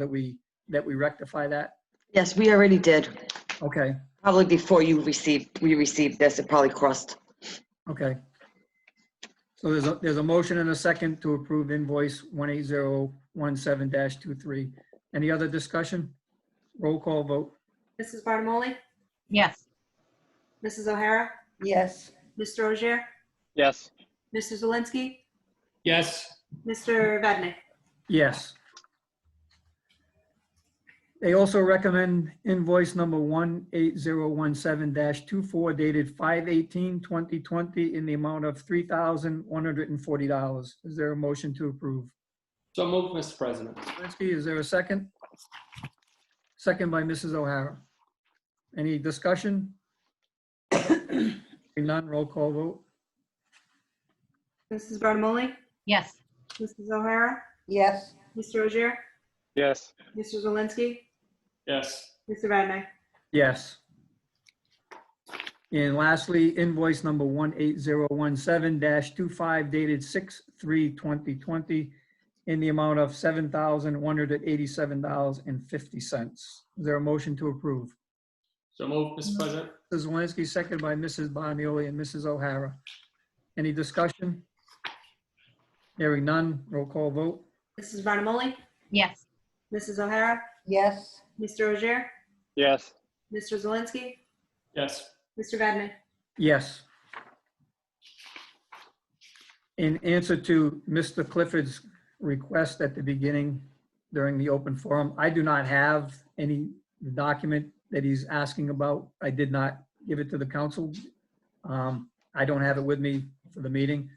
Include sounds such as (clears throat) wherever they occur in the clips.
that we, that we rectify that? Yes, we already did. Okay, Probably before you received, we received this, it probably crossed. okay. So there's a, there's a motion and a second to approve invoice 18017-23. Any other discussion? Roll call vote. Mrs. Barnamoli? Yes. Mrs. O'Hara? yes, Mr. Rozier? Yes. Mr. Zelinski? Yes. Mr. Vadeney? Yes. They also recommend invoice number 18017-24 dated 5/18/2020 in the amount of $3,140. Is there a motion to approve? So moved, Mr. President. Zelinski, is there a second? Second by Mrs. O'Hara. Any discussion? Hearing none, roll call vote. Mrs. Barnamoli? Yes. Mrs. O'Hara? yes, Mr. Rozier? Yes. Mr. Zelinski? Yes. Mr. Vadeney? Yes. And lastly, invoice number 18017-25 dated 6/3/2020 in the amount of $7,187.50. Is there a motion to approve? So moved, Mr. President. Mrs. Zelinski, second by Mrs. Bonioli and Mrs. O'Hara. Any discussion? Hearing none, roll call vote. Mrs. Barnamoli? Yes. Mrs. O'Hara? yes, Mr. Rozier? Yes. Mr. Zelinski? Yes. Mr. Vadeney? Yes. In answer to Mr. Clifford's request at the beginning during the open forum, I do not have any document that he's asking about. I did not give it to the council. Um, I don't have it with me for the meeting.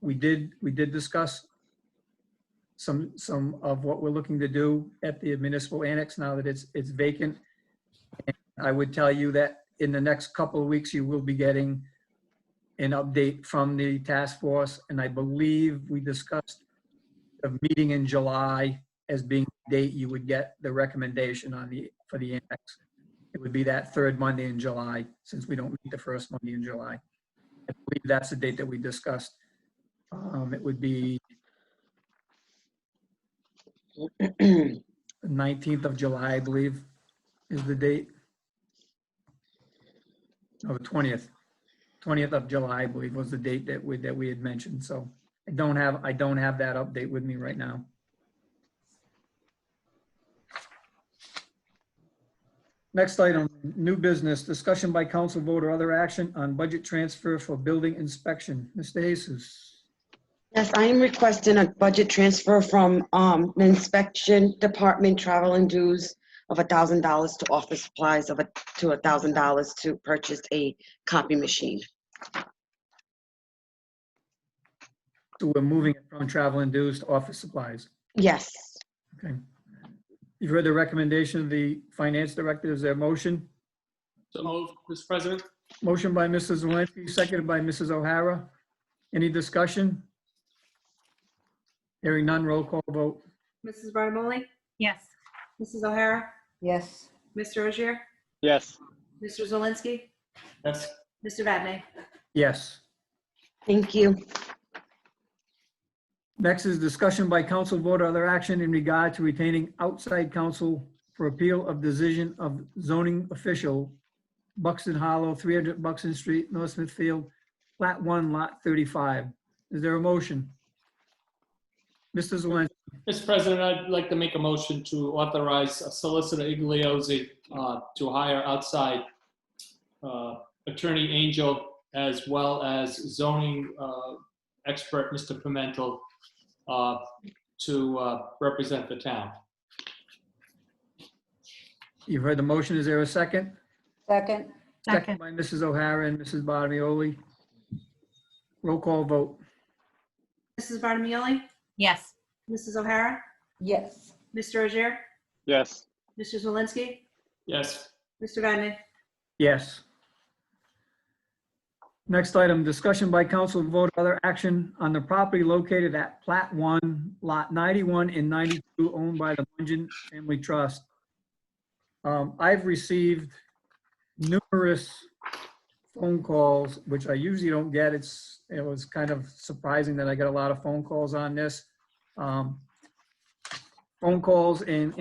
We did, we did discuss some, some of what we're looking to do at the municipal annex now that it's, it's vacant. I would tell you that in the next couple of weeks, you will be getting an update from the task force. And I believe we discussed a meeting in July as being the date you would get the recommendation on the, for the annex. It would be that third Monday in July, since we don't meet the first Monday in July. I believe that's the date that we discussed. Um, It would be (clears throat) 19th of July, I believe, is the date. Oh, the twentieth, twentieth of July, I believe, was the date that we, that we had mentioned, so I don't have, I don't have that update with me right now. Next item, new business, discussion by council vote or other action on budget transfer for building inspection. Mr. Jesus, Yes, I am requesting a budget transfer from um, the inspection department travel and dues of $1,000 to office supplies of, a to $1,000 to purchase a copy machine. so we're moving it from travel induced office supplies, Yes, okay? You've heard the recommendation of the finance director, is there a motion? So moved, Mr. President. Motion by Mrs. Zelinski, seconded by Mrs. O'Hara. Any discussion? Hearing none, roll call vote. Mrs. Barnamoli? Yes. Mrs. O'Hara? yes, Mr. Rozier? Yes. Mr. Zelinski? Yes. Mr. Vadeney? Yes. thank you. Next is discussion by council vote or other action in regard to retaining outside counsel for appeal of decision of zoning official Buxton Hollow, 300 Buxton Street, North Smithfield, Lot 1, Lot 35. Is there a motion? Mr. Zelinski, Mr. President, I'd like to make a motion to authorize Solicitor Igliozzi uh, to hire outside uh, Attorney Angel as well as zoning uh, expert, Mr. Pimental, uh, to uh, represent the town. you've heard the motion. Is there a second? second, Second by Mrs. O'Hara and Mrs. Bottomoli. Roll call vote. Mrs. Barnamoli? Yes. Mrs. O'Hara? yes, Mr. Rozier? Yes. Mr. Zelinski? Yes. Mr. Vadeney? Yes. Next item, discussion by council vote other action on the property located at Plat 1, Lot 91 and 92 owned by the Mungian Family Trust. Um, I've received numerous phone calls, which I usually don't get. It's, it was kind of surprising that I got a lot of phone calls on this. Um, phone calls and